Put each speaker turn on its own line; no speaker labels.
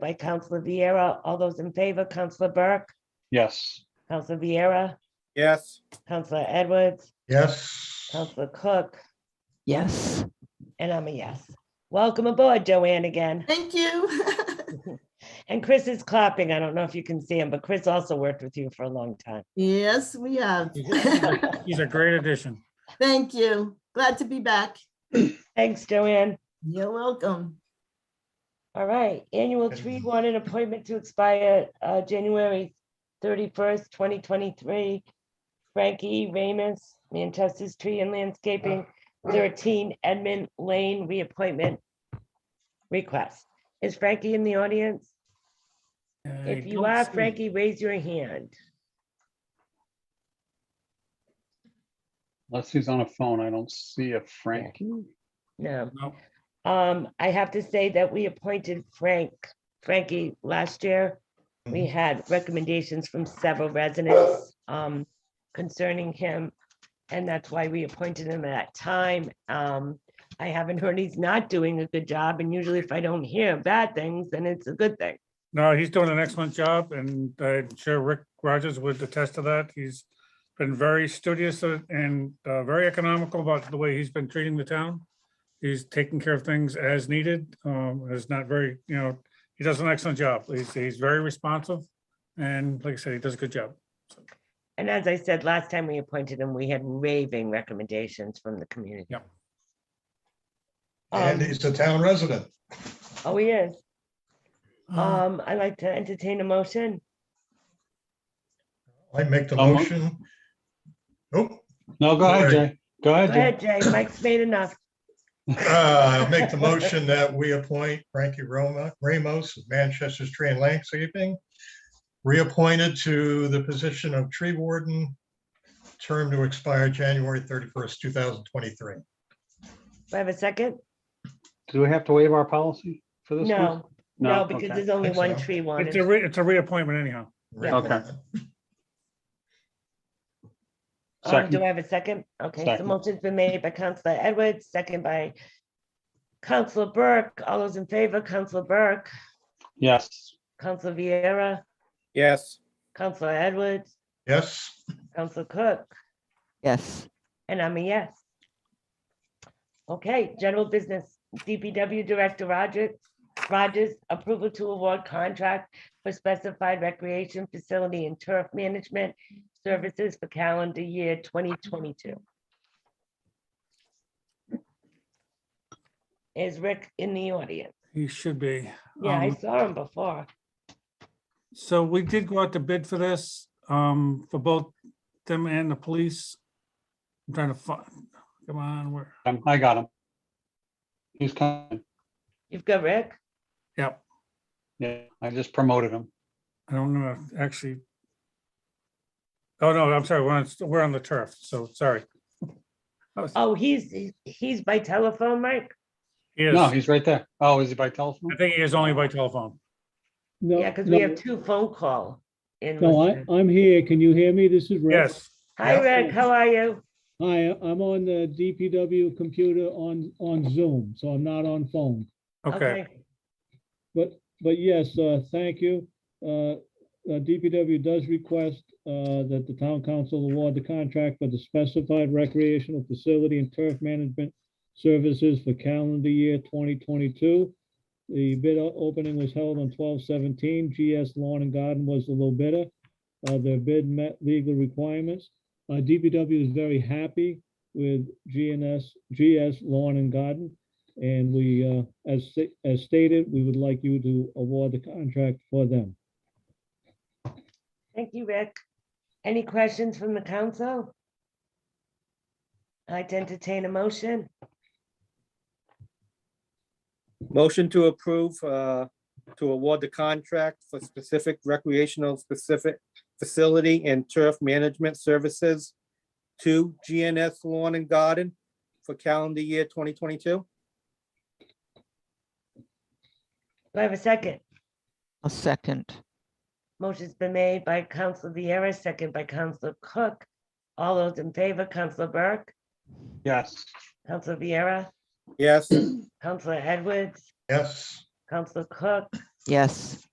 by Counselor Vieira. All those in favor, Counselor Burke,
Yes.
Counselor Vieira,
Yes.
Counselor Edwards,
Yes.
Counselor Cook,
Yes.
and I'm a yes. Welcome aboard, Joanne, again.
Thank you.
And Chris is clapping. I don't know if you can see him, but Chris also worked with you for a long time.
Yes, we have.
He's a great addition.
Thank you. Glad to be back.
Thanks, Joanne.
You're welcome.
All right, annual tree warden appointment to expire uh, January thirty-first, twenty twenty-three. Frankie Ramus, Manchester's Tree and Landscaping, thirteen Edmund Lane reappointment request. Is Frankie in the audience? If you are Frankie, raise your hand.
Unless he's on a phone, I don't see a Frankie.
No,
No,
um, I have to say that we appointed Frank, Frankie last year. We had recommendations from several residents um, concerning him. And that's why we appointed him at that time. Um, I haven't heard he's not doing a good job, and usually if I don't hear bad things, then it's a good thing.
no, he's doing an excellent job and I'm sure Rick Rogers would attest to that. He's been very studious uh, and uh, very economical about the way he's been treating the town. He's taking care of things as needed. Um, It's not very, you know, he does an excellent job. He's, he's very responsive. And like I said, he does a good job.
And as I said, last time we appointed him, we had raving recommendations from the community.
Yep.
Um,
And he's a town resident.
Oh, he is.
Uh-huh.
Uh,
Um, I'd like to entertain a motion.
I make the
Um,
motion. Nope,
No, go ahead, Jay. Go
Go
ahead,
ahead, Jay. Mike's made enough.
uh, I make the motion that we appoint Frankie Roma, Ramos, of Manchester's Tree and Landscaping, reappointed to the position of tree warden, term to expire January thirty-first, two thousand twenty-three.
Do I have a second?
Jay. Do we have to waive our policy for this? one?
No, no, because
okay.
there's only
Think
one
so.
tree
It's a,
warden.
re- it's a reappointment anyhow.
Okay.
Um,
Second.
Do I have a second? Okay, so
Second.
motion's been made by Counselor Edwards, second by Counselor Burke. All those in favor, Counselor Burke,
Yes.
Counselor Vieira,
Yes.
Counselor Edwards,
Yes,
Counselor Cook,
Yes.
and I'm a yes. Okay, general business, DPW Director Rogers, Rogers, approval to award contract for specified recreation facility and turf management services for calendar year 2022. Is Rick in the audience?
He should be.
Yeah, I
Um,
saw him before.
So we did go out to bid for this, um, for both them and the police. I'm trying to find, come on, where,
Um, I got him. He's coming.
You've got Rick?
yep,
Yeah, I just promoted him.
I don't know, actually. Oh, no, I'm sorry, we're on, we're on the turf, so sorry. I was-
Oh, he's, he's by telephone, Mike?
He is,
No,
I
he's right there. Oh, is he by telephone?
think he is only by telephone.
No,
Yeah, because we
no,
have two phone call. in
No, I,
Worcester.
I'm here. Can you hear me? This is Rick.
Yes,
Hi, Rick, how are you?
Hi, I'm on the DPW computer on, on Zoom, so I'm not on phone.
okay,
But, but yes, uh, thank you. Uh, uh, DPW does request, uh, that the town council award the contract for the specified recreational facility and turf management services for calendar year twenty twenty-two. The bid o- opening was held on 12-17. GS Lawn and Garden was the low bidder. Uh, their bid met legal requirements. Uh, DPW is very happy with GNS, GS Lawn and Garden. And we, uh, as, sta- as stated, we would like you to award the contract for them.
Thank you, Rick. Any questions from the council? I'd entertain a motion.
Motion to approve, uh, to award the contract for specific recreational specific facility and turf management services to GNS Lawn and Garden for calendar year twenty twenty-two.
Do I have a second?
A second.
Motion's been made by Council Vieira, second by Council Cook. All those in favor, Council Burke,
Yes.
Council Vieira,
Yes.
Council Edwards,
yes.
Council Cook,
yes.